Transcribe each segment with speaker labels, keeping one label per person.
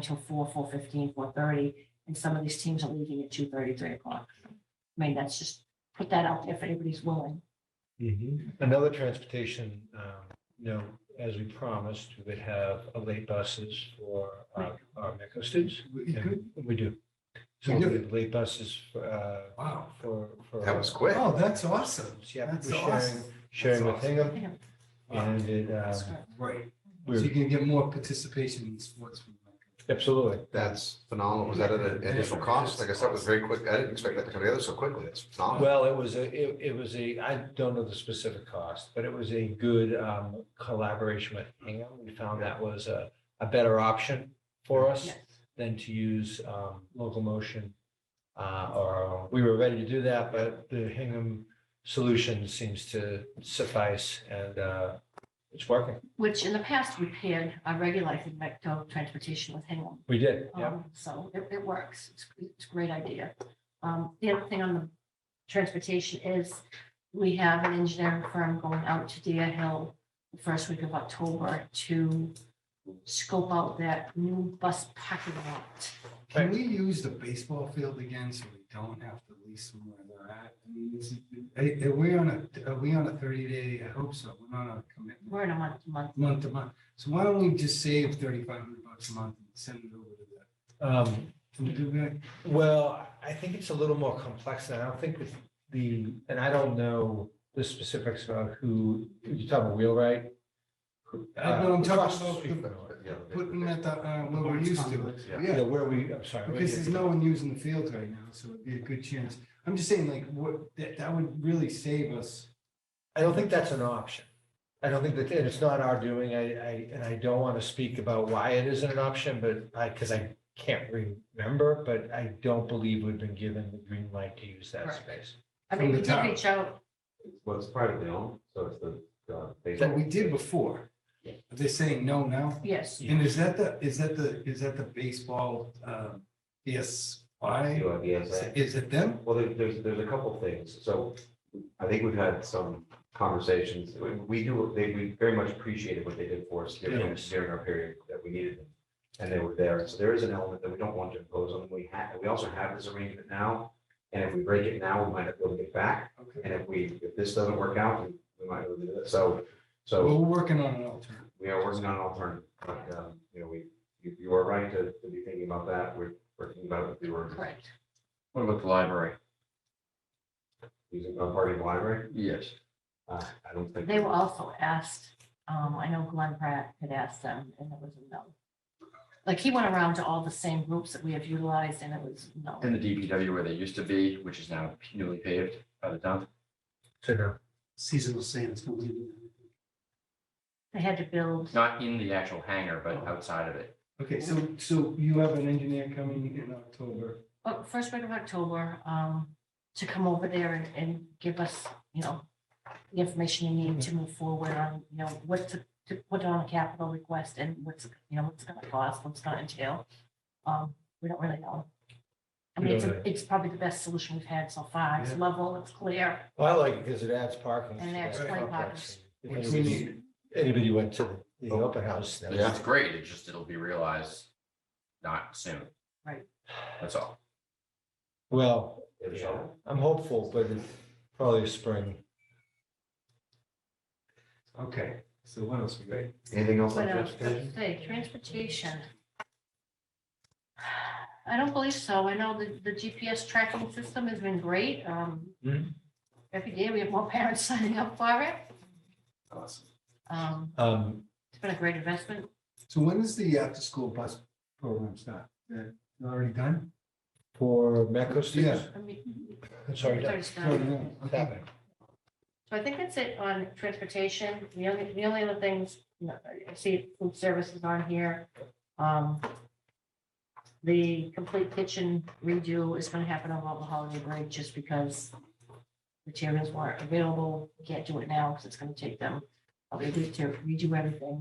Speaker 1: until four, four fifteen, four thirty, and some of these teams are leaving at two thirty, three o'clock. I mean, that's just, put that out there if anybody's willing.
Speaker 2: Another transportation, um, you know, as we promised, we would have a late buses for our, our MECO students.
Speaker 3: We
Speaker 2: Yeah,
Speaker 3: could-
Speaker 2: We do. So we have late buses, for, uh,
Speaker 3: Wow.
Speaker 2: for. for-
Speaker 4: That was quick.
Speaker 3: Oh, that's awesome.
Speaker 2: Yeah,
Speaker 3: That's
Speaker 2: we're sharing,
Speaker 3: awesome.
Speaker 2: sharing with
Speaker 4: That's awesome.
Speaker 2: Hingham
Speaker 1: Hingham.
Speaker 2: and it, uh,
Speaker 1: That's correct.
Speaker 3: Right. So you
Speaker 2: we're,
Speaker 3: can get more participation in sports. from that.
Speaker 2: absolutely.
Speaker 4: That's phenomenal. Was that at an additional cost? Like I said, it was very quick. I didn't expect that to come together so quickly. It's phenomenal.
Speaker 2: Well, it was a, it, it was a, I don't know the specific cost, but it was a good um, collaboration with Hingham. We found that was a, a better option for us
Speaker 1: Yes.
Speaker 2: than to use um, local motion. Uh, or we were ready to do that, but the Hingham solution seems to suffice and uh, it's working.
Speaker 1: Which in the past, we paired our regulated MECTO transportation with Hingham.
Speaker 2: We did, yeah.
Speaker 1: Um, So it, it works. It's, it's a great idea. Um, the other thing on the transportation is we have an engineering firm going out to Deer Hill the first week of October to scope out that new bus parking lot.
Speaker 3: Can we use the baseball field again so we don't have to lease them where they're at? I mean, is it- Are are we on a, are we on a thirty day? I hope so. We're not on a commitment,
Speaker 1: We're in a month, month.
Speaker 3: month to month. So why don't we just save thirty five hundred bucks a month and send it over to that?
Speaker 2: Um,
Speaker 3: Can we do that?
Speaker 2: Well, I think it's a little more complex than I don't think it's the, and I don't know the specifics about who, you're talking about Wheelwright? Who-
Speaker 3: I know, I'm
Speaker 2: uh,
Speaker 3: talking
Speaker 2: across the
Speaker 3: about
Speaker 2: street
Speaker 3: the-
Speaker 2: from Wheelwright.
Speaker 4: Yeah.
Speaker 3: Putting that, uh, where we're used to.
Speaker 4: Yeah.
Speaker 2: Yeah, where we, I'm sorry. where
Speaker 3: Because
Speaker 2: you-
Speaker 3: there's no one using the field right now, so it'd be a good chance. I'm just saying like, what, that, that would really save us.
Speaker 2: I don't think that's an option. I don't think that, and it's not our doing, I, I, and I don't want to speak about why it isn't an option, but I, because I can't remember, but I don't believe we've been given the green light to use that
Speaker 1: Right.
Speaker 2: space.
Speaker 1: I mean,
Speaker 3: From the
Speaker 1: we did
Speaker 3: town.
Speaker 1: reach out.
Speaker 5: Well, it's privately owned, so it's the, uh, they.
Speaker 3: But we did before.
Speaker 2: Yeah.
Speaker 3: They're saying no now.
Speaker 1: Yes,
Speaker 3: And is that the, is that the, is that the baseball, um, yes, why?
Speaker 5: UIBSA.
Speaker 3: Is it them?
Speaker 5: Well, there- there's, there's a couple things. So I think we've had some conversations. We- We do, they, we very much appreciated what they did for us during,
Speaker 2: Yes.
Speaker 5: during our period that we needed them. And they were there. So there is an element that we don't want to impose on them. We have, we also have this arrangement now. And if we break it now, we might not be able to get back.
Speaker 3: Okay.
Speaker 5: And if we, if this doesn't work out, we we might not be able to do it. So, so.
Speaker 3: We're working on an alternative.
Speaker 5: we are working on an alternative, but, um, you know, we, you, you are right to, to be thinking about that, we're, we're thinking about it with the word
Speaker 1: correct.
Speaker 6: What about the library?
Speaker 5: using a party library,
Speaker 6: Yes.
Speaker 5: uh, I don't think.
Speaker 1: They were also asked, um, I know Glenn Pratt had asked them and it was a no. Like he went around to all the same groups that we have utilized and it was no.
Speaker 6: In the DPW where they used to be, which is now newly paved by the dump.
Speaker 2: So no.
Speaker 3: Seasonal sands. don't leave it.
Speaker 1: They had to build
Speaker 6: Not in the actual hangar, but outside of it.
Speaker 3: Okay, so, so you have an engineer coming in October.
Speaker 1: uh, first week of October, um, to come over there and, and give us, you know, the information you need to move forward on, you know, what to, to put on a capital request and what's, you know, what's it gonna cost, what's it gonna entail. Um, we don't really know. I mean, it's, a- it's probably the best solution we've had so far. It's level, it's clear.
Speaker 2: Well, I like it because it adds parking.
Speaker 1: And
Speaker 2: to
Speaker 1: adds
Speaker 2: that
Speaker 1: play
Speaker 2: complex. If
Speaker 3: Which we
Speaker 2: anybody-
Speaker 3: need.
Speaker 2: Anybody went to the- the open house? that was-
Speaker 6: It's great, it just, it'll be realized not soon.
Speaker 1: Right.
Speaker 6: That's all.
Speaker 2: Well,
Speaker 5: It was all-
Speaker 2: I'm hopeful, but it's probably spring.
Speaker 3: Okay, so what else we got?
Speaker 5: Anything else on
Speaker 1: What else?
Speaker 5: transportation?
Speaker 1: Say, um, transportation. I don't believe so. I know the, the GPS tracking system has been great. Um,
Speaker 2: Mhm.
Speaker 1: every day we have more parents signing up for it.
Speaker 6: Awesome.
Speaker 1: Um,
Speaker 2: Um,
Speaker 1: it's been a great investment.
Speaker 3: So when does the after-school bus program start? Uh, Already done?
Speaker 2: for Metco students,
Speaker 1: I mean,
Speaker 2: I'm
Speaker 1: sorry,
Speaker 2: sorry, Doug,
Speaker 1: it's
Speaker 3: Oh,
Speaker 1: done.
Speaker 3: yeah,
Speaker 2: what's
Speaker 3: okay.
Speaker 2: happening?
Speaker 1: So I think that's it on transportation. The only, the only other things, you know, I see food services on here. Um, The complete kitchen redo is going to happen over the holiday break just because materials weren't available. Can't do it now because it's going to take them a week to redo everything.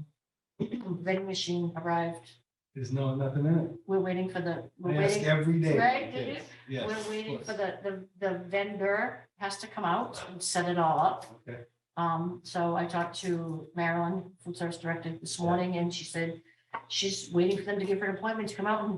Speaker 1: Vending machine arrived.
Speaker 3: There's no, nothing in it.
Speaker 1: We're waiting for the,
Speaker 3: I
Speaker 1: we're
Speaker 3: ask
Speaker 1: waiting,
Speaker 3: every day.
Speaker 1: right? did you?
Speaker 3: Yes.
Speaker 1: We're waiting
Speaker 3: of
Speaker 1: for
Speaker 3: course.
Speaker 1: the, the, the vendor has to come out and set it all up.
Speaker 3: Okay.
Speaker 1: Um, so I talked to Marilyn, food service director this morning, and she said she's waiting for them to give her an appointment to come out and